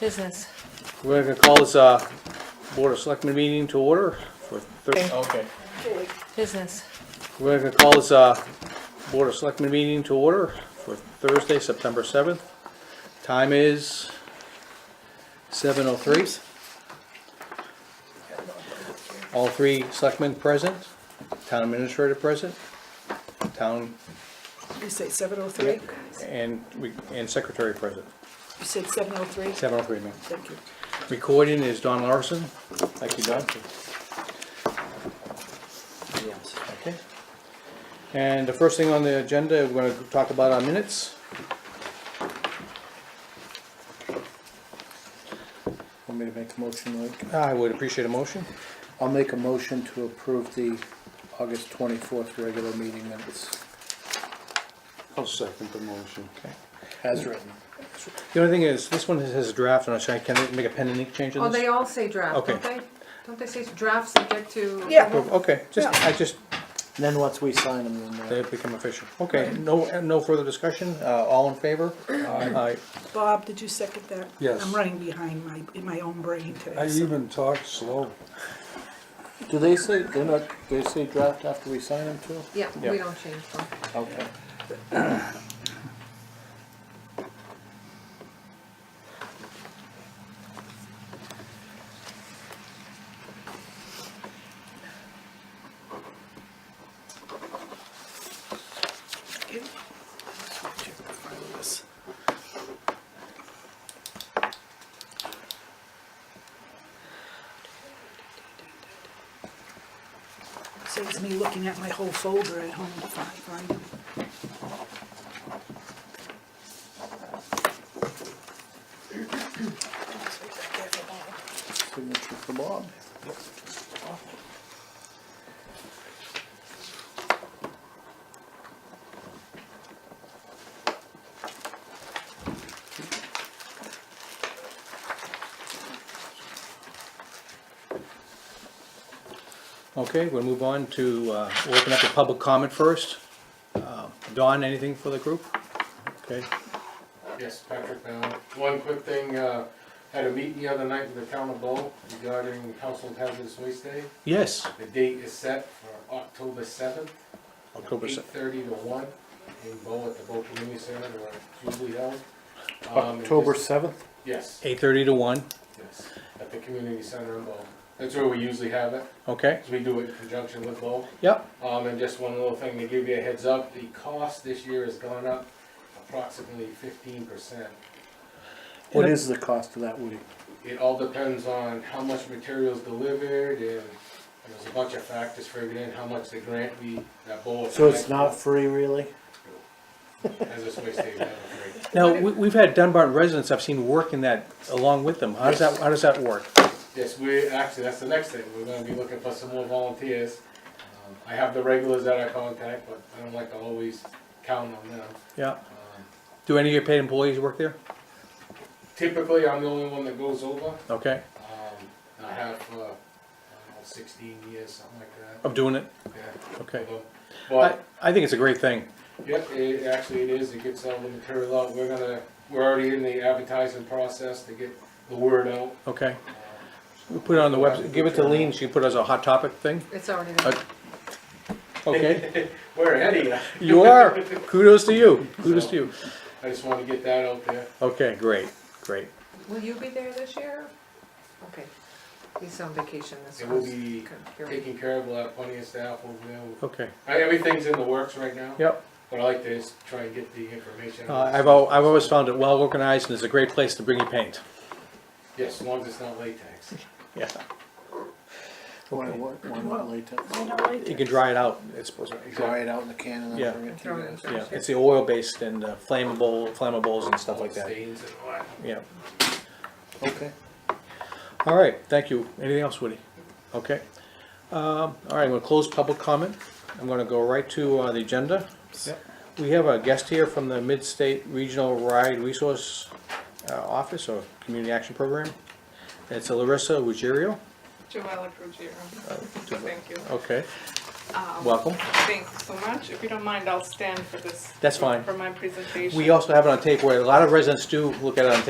business. We're gonna call this, uh, Board of Selectmen meeting to order for Thursday. Okay. Business. We're gonna call this, uh, Board of Selectmen meeting to order for Thursday, September seventh. Time is seven oh three. All three selectmen present, town administrator present, town, You say seven oh three? and, we- and secretary present. You said seven oh three? Seven oh three, ma'am. Thank you. Recording is Don Larson. Thank you, Don. Okay. And the first thing on the agenda, we're gonna talk about our minutes. Want me to make a motion, Mike? I would appreciate a motion. I'll make a motion to approve the August twenty-fourth regular meeting minutes I'll second the motion. Okay. as written. The only thing is, this one has a draft, and I should- can I make a pen and ink change in Oh, this? they all say draft, don't Okay. they? Don't they say draft subject to? Yeah. Okay, just, I just, Then once we sign them, then they become official. Okay, no, no further discussion, uh, all in favor? Aye. Bob, did you second that? Yes. I'm running behind my, in my own brain I today. so- even talk slow. they'll- do they say, they're not, they say draft after we sign them too? Yeah, we Yeah. don't change them. Okay. Okay. Check the file of this. Saves me looking at my whole folder at home to find, find them. Signature for Bob. Okay, we'll move on to, uh, we'll open up the public comment first. Uh, Don, anything for the group? Okay, Yes, Patrick Mallon. One quick thing, uh, had a meeting the other night with the town of Bow regarding household hazardous waste day. yes, The date is set for October seventh, October eight seventh. thirty to one, in Bow at the Bow Community Center, where it's usually held. Um, it October just- seventh? Yes, Eight thirty to one, yes, at the community center in Bow. That's where we usually have it, okay, 'cause we do it in conjunction with Bow. yep, Um, and just one little thing to give you a heads up, the cost this year has gone up approximately fifteen percent. What is the cost of that, Woody? It all depends on how much material's delivered and there's a bunch of factors figured in, how much the grant we, that bowl. So it's not free, really? As this way stays, not free. Now, we, we've had Dunbarton residents I've seen working that along with them. How does that, how does that work? Yes, we, actually, that's the next thing, we're gonna be looking for some more volunteers. Um, I have the regulars that I contact, but I don't like to always count on them. Yeah. Um, Do any of your paid employees work there? Typically, I'm the only one that goes over, Okay, um, I have, uh, I don't know, sixteen years, something like that. of doing it? Yeah. Okay. I, But I think it's a great thing. Yep, it, actually it is, it gets all the material out, we're gonna, we're already in the advertising process to get the word out. Okay. We put it on the website, give it to Lean, she can put it as a hot topic thing, It's already there. Okay. okay? We're ahead of you, You are, kudos to you, kudos to you. I just wanna get that out there. Okay, great, great. Will you be there this year? Okay. He's on vacation this It year. will be Period. taken care of, we'll have plenty of staff over there. Okay, I- Everything's in the works right now. yep. But I like to just try and get the information. Uh, out. I've, al- I've always found it well organized and it's a great place to bring your paint. Yes, as long as it's not latex. Yeah, Why, what, why not latex? you can dry it out, it's supposed to. Dry it out in the can and Yeah. then bring it to Throw you it in. guys. Yeah, it's the oil-based and uh, flammable, flammables and stuff like that, Stains and all that. yeah. Okay. All right, thank you. Anything else, Woody? Okay. Um, All right, I'm gonna close public comment. I'm gonna go right to uh, the agenda. We have a guest here from the Mid-State Regional Ride Resource uh, Office or Community Action Program. It's Larissa Ruggiero. Joella Ruggiero. Oh, Thank you. Okay. Welcome. Thanks so much. If you don't mind, I'll stand for this. That's fine. For my presentation. We also have it on tape where a lot of residents do look at it on tape